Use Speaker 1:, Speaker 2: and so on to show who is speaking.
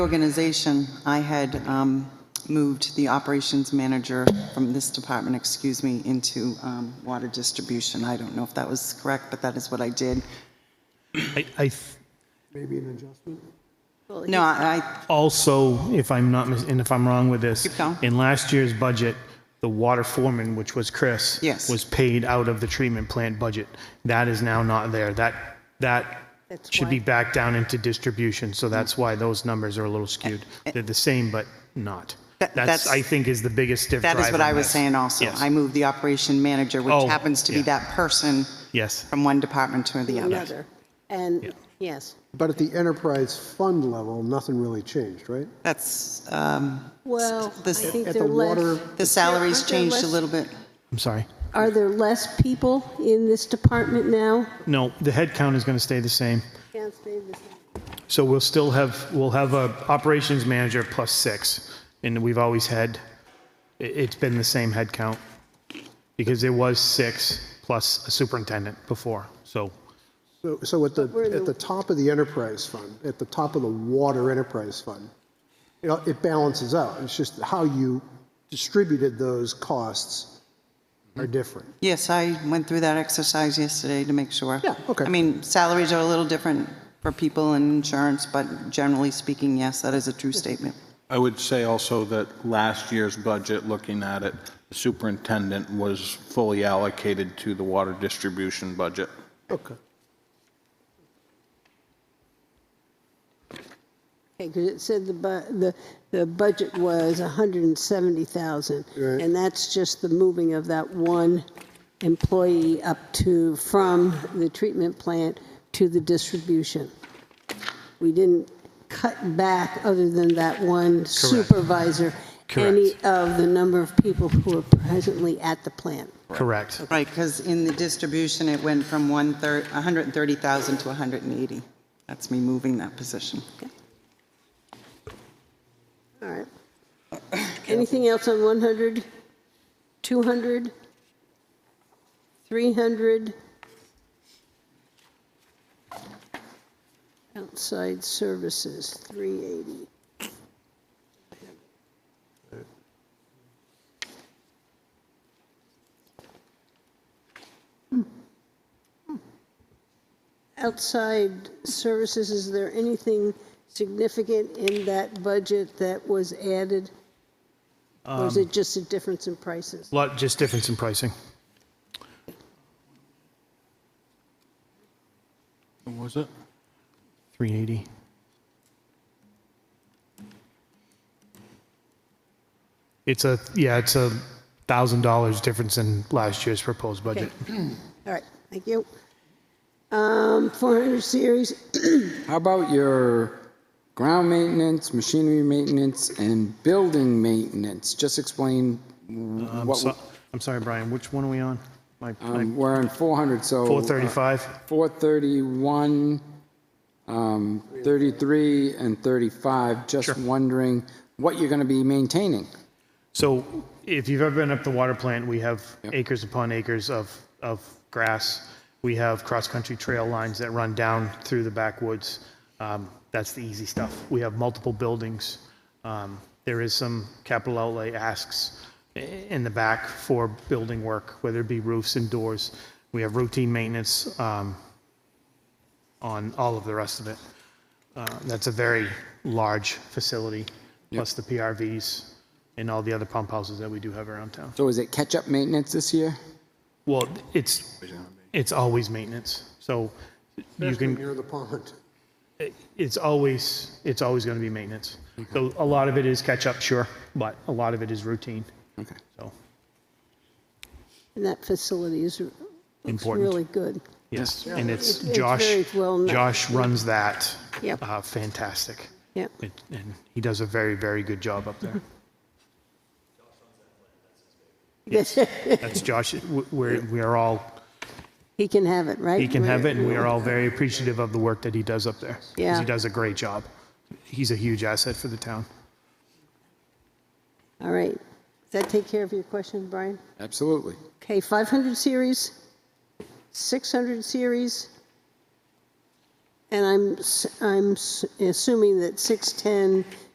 Speaker 1: Organization, I had um, moved the operations manager from this department, excuse me, into um, water distribution. I don't know if that was correct, but that is what I did.
Speaker 2: I, I th-
Speaker 1: No, I,
Speaker 2: also, if I'm not, mis- and if I'm wrong with this,
Speaker 1: Keep going.
Speaker 2: in last year's budget, the water foreman, which was Chris,
Speaker 1: Yes.
Speaker 2: was paid out of the treatment plant budget. That is now not there. That, that
Speaker 3: That's
Speaker 2: should be
Speaker 3: why-
Speaker 2: back down into distribution, so that's why those numbers are a little skewed. They're the same, but not.
Speaker 1: Eh, That-
Speaker 2: That's,
Speaker 1: that's-
Speaker 2: I think, is the biggest diff
Speaker 1: that is
Speaker 2: drive
Speaker 1: what
Speaker 2: on
Speaker 1: I was
Speaker 2: this.
Speaker 1: saying also.
Speaker 2: Yes.
Speaker 1: I moved the operation manager,
Speaker 2: Oh,
Speaker 1: which happens to be
Speaker 2: yeah.
Speaker 1: that person
Speaker 2: Yes.
Speaker 1: from one department to the other.
Speaker 3: Another. And, yes.
Speaker 4: But at the enterprise fund level, nothing really changed, right?
Speaker 1: That's, um,
Speaker 3: Well, I
Speaker 1: This-
Speaker 3: think
Speaker 4: At
Speaker 3: they're
Speaker 4: the water-
Speaker 3: less.
Speaker 1: the salaries
Speaker 3: Aren't there
Speaker 1: changed a
Speaker 3: less-
Speaker 1: little bit.
Speaker 2: I'm sorry.
Speaker 3: Are there less people in this department now?
Speaker 2: No, the head count is going to stay the same.
Speaker 3: Can't stay the same.
Speaker 2: So we'll still have, we'll have a operations manager plus six, and we've always had, i- it's been the same head count. Because it was six plus a superintendent before, so,
Speaker 4: So, so at the,
Speaker 3: we're in
Speaker 4: at
Speaker 3: the-
Speaker 4: the top of the enterprise fund, at the top of the water enterprise fund, you know, it balances out. It's just how you distributed those costs are different.
Speaker 1: Yes, I went through that exercise yesterday to make sure.
Speaker 4: Yeah, okay.
Speaker 1: I mean, salaries are a little different for people and insurance, but generally speaking, yes, that is a true statement.
Speaker 5: I would say also that last year's budget, looking at it, the superintendent was fully allocated to the water distribution budget.
Speaker 4: Okay.
Speaker 3: Okay, because it said the bu, the, the budget was 170,000.
Speaker 4: Right.
Speaker 3: And that's just the moving of that one employee up to, from the treatment plant to the distribution. We didn't cut back, other than that one supervisor, any
Speaker 2: Correct.
Speaker 3: of the number of people who are presently at the plant.
Speaker 2: correct.
Speaker 1: Right, because in the distribution, it went from one third, 130,000 to 180. That's me moving that position.
Speaker 3: All right. Anything else on 100, 200, 300? Outside services, 380. Outside services, is there anything significant in that budget that was added? Or is it just a difference in prices?
Speaker 2: Lot, just difference in pricing.
Speaker 5: What was it?
Speaker 2: 380. It's a, yeah, it's a $1,000 difference in last year's proposed budget.
Speaker 3: All right, thank you. Um, 400 series,
Speaker 6: How about your ground maintenance, machinery maintenance, and building maintenance? Just explain
Speaker 2: I'm
Speaker 6: what,
Speaker 2: Um, so- I'm sorry, Brian, which one are we on? My-
Speaker 6: we-
Speaker 2: my-
Speaker 6: um, we're on 400, so. uh,
Speaker 2: 435?
Speaker 6: 431, um, 33, and 35. Just wondering what you're going to be maintaining.
Speaker 2: So if you've ever been up the water plant, we have acres upon acres of, of grass. We have cross-country trail lines that run down through the backwoods. Um, That's the easy stuff. We have multiple buildings. Um, There is some capital outlay asks i- in the back for building work, whether it be roofs and doors. We have routine maintenance um, on all of the rest of it. Uh, That's a very large facility, plus the PRVs and all the other pump houses that we do have around town.
Speaker 6: So is it catch-up maintenance this year?
Speaker 2: Well, it's, it's always maintenance, so you can,
Speaker 4: Near the pond.
Speaker 2: it's always, it's always going to be maintenance. So a lot of it is catch-up, sure, but a lot of it is routine,
Speaker 6: Okay.
Speaker 2: so,
Speaker 3: and that facility is, looks
Speaker 2: Important.
Speaker 3: really good.
Speaker 2: yes. And it's
Speaker 3: It's- it's
Speaker 2: Josh,
Speaker 3: very well known.
Speaker 2: Josh runs that.
Speaker 3: Yep.
Speaker 2: uh, Fantastic.
Speaker 3: Yep.
Speaker 2: And and he does a very, very good job up there. Yes, That's Josh, W- we're, we are all,
Speaker 3: He can have it, right?
Speaker 2: he can have it, and we are all
Speaker 3: Right.
Speaker 2: very appreciative of the work that he does up there. 'cause
Speaker 3: Yeah.
Speaker 2: He does a great job. He's a huge asset for the town.
Speaker 3: All right. Does that take care of your question, Brian?
Speaker 6: Absolutely.
Speaker 3: Okay, 500 series, 600 series, And I'm, s- I'm s- assuming that 610